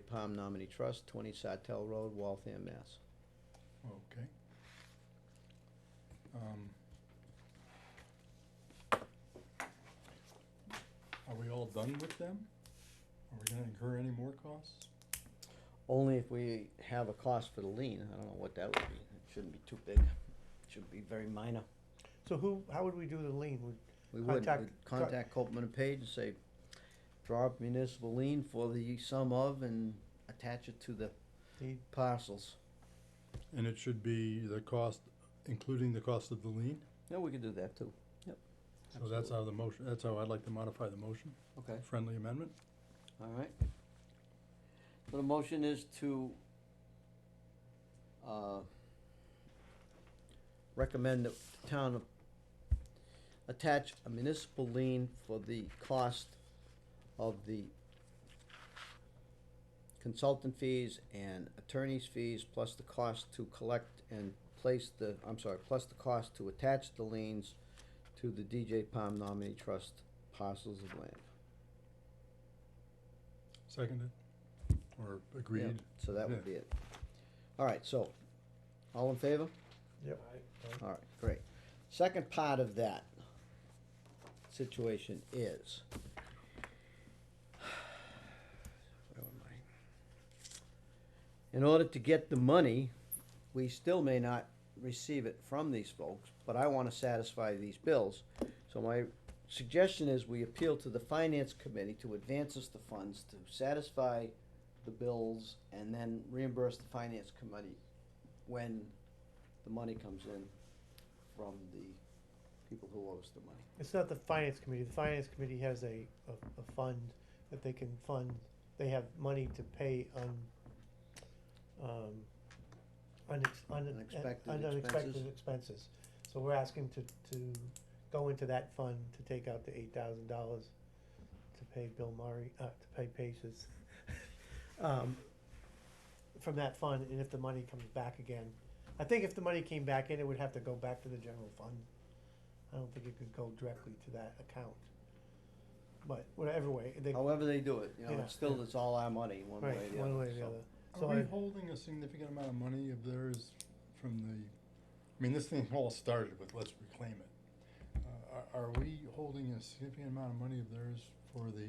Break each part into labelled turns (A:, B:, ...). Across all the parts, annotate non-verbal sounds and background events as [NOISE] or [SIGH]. A: Palm Nominee Trust, 20 Sartell Road, Waltham, Mass.
B: Okay. Um, Are we all done with them? Are we gonna incur any more costs?
A: Only if we have a cost for the lien, I don't know what that would be, it shouldn't be too big, it should be very minor.
C: So who, how would we do the lien? Would-
A: We would,
C: Contact-
A: we'd contact Copeland and Page and say, draw up municipal lien for the sum of and attach it to the
C: The-
A: parcels.
B: And it should be the cost, including the cost of the lien?
A: No, we could do that too, yep.
B: So that's
A: Absolutely.
B: how the motion, that's how I'd like to modify the motion,
A: Okay,
B: friendly amendment?
A: all right. So the motion is to, uh, recommend that the town of- attach a municipal lien for the cost of the consultant fees and attorney's fees, plus the cost to collect and place the, I'm sorry, plus the cost to attach the liens to the DJ Palm nominee trust parcels of land.
B: Seconded? Or
A: Yeah,
B: agreed?
A: So that would
B: Yeah.
A: be it. All right, so, all in favor?
C: Yep.
A: All right, great. Second part of that situation is. Where am I? In order to get the money, we still may not receive it from these folks, but I wanna satisfy these bills. So my suggestion is we appeal to the finance committee to advance us the funds to satisfy the bills and then reimburse the finance committee when the money comes in from the people who owe us the money.
C: It's not the finance committee. The finance committee has a, a, a fund that they can fund. They have money to pay on, um, unex, un- un-
A: Unexpected
C: un-
A: expenses.
C: unexpected expenses. So we're asking to, to go into that fund to take out the eight thousand dollars to pay Bill Murray, uh, to pay Paces. [LAUGHS] Um, from that fund, and if the money comes back again, I think if the money came back in, it would have to go back to the general fund. I don't think it could go directly to that account. But whatever way, they, right,
A: However they do it, you know,
C: Yeah.
A: it's still, it's all our money, one way or the other.
C: one way or the
A: so.
C: other. So
B: Are we
C: I-
B: holding a significant amount of money of theirs from the, I mean, this thing [LAUGHS] all started with let's reclaim it. Uh, Are, are we holding a significant amount of money of theirs for the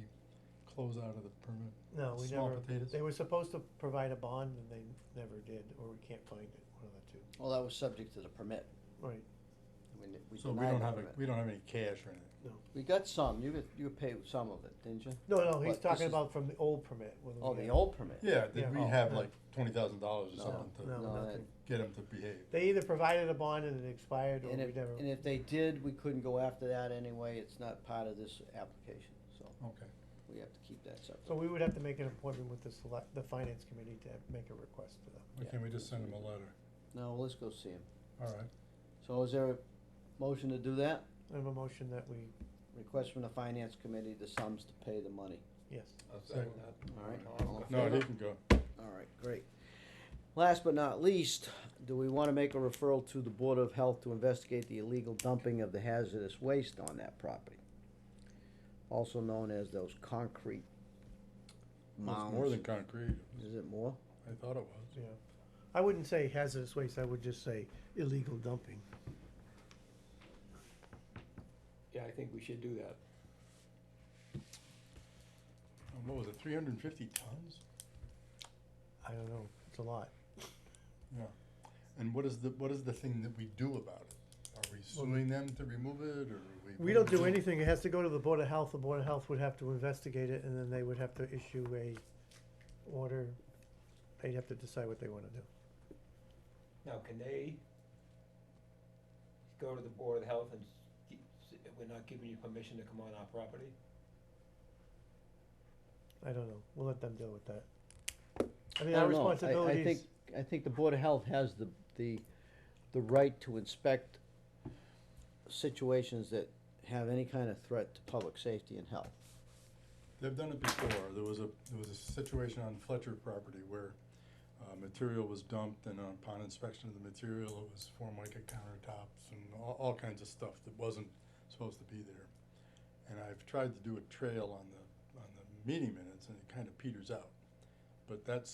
B: closeout of the permit?
C: No, we
B: Small
C: never,
B: potatoes?
C: they were supposed to provide a bond and they never did, or we can't find it, one of the two.
A: Well, that was subject to the permit.
C: Right,
A: I mean, we
B: So we
A: denied
B: don't
A: the
B: have, a
A: permit.
B: we don't have any cash or anything.
A: We got some, you got, you paid some of it, didn't you?
C: no, no,
A: What,
C: he's
A: this
C: talking
A: is-
C: about from the old permit. whether
A: Oh,
C: we
A: the
C: had-
A: old permit?
B: Yeah,
C: Yeah.
B: did we
A: Oh,
B: have
C: no.
B: like twenty thousand dollars or
A: No,
B: something to
C: No,
A: No,
C: nothing.
B: get them to behave?
C: They either provided a bond and it expired, or we
A: And if,
C: never,
A: and if they did, we couldn't go after that anyway, it's not part of this application, so
B: Okay,
A: we have to keep that separate.
C: so we would have to make an appointment with the select, the finance committee to make a request for them.
B: why
A: Yeah.
B: can't we just send them a letter?
A: No, let's go see him.
B: All right,
A: So is there a motion to do that?
C: I have a motion that we,
A: Request from the finance committee the sums to pay the money.
C: yes,
B: second
A: All right, all in
B: no,
A: favor?
B: he can go.
A: All right, great. Last but not least, do we want to make a referral to the Board of Health to investigate the illegal dumping of the hazardous waste on that property? Also known as those concrete
B: Well,
A: mounds.
B: It's more than concrete,
A: Is it more?
B: I thought it was.
C: yeah. I wouldn't say hazardous waste, I would just say illegal dumping.
D: Yeah, I think we should do that.
B: And Um, What was it, three hundred and fifty tons?
C: I don't know, it's a lot.
B: And what is the, what is the thing that we do about it? Are we suing them to remove it, or are we?
C: We don't do anything, it has to go to the Board of Health, the Board of Health would have to investigate it, and then they would have to issue a order. They'd have to decide what they wanna do.
D: Now, can they go to the Board of Health and s- keep- s- we're not giving you permission to come on our property?
C: I don't know, we'll let them deal with that. I
A: I don't
C: mean, our
A: know. I- I
C: responsibility
A: think,
C: is,
A: I think the Board of Health has the, the, the right to inspect situations that have any kind of threat to public safety and health.
B: They've done it before, there was a, there was a situation on Fletcher property where, uh, material was dumped, and upon inspection of the material, it was formica countertops and all, all kinds of stuff that wasn't supposed to be there. And I've tried to do a trail on the, on the meeting minutes, and it kinda peters out. but that's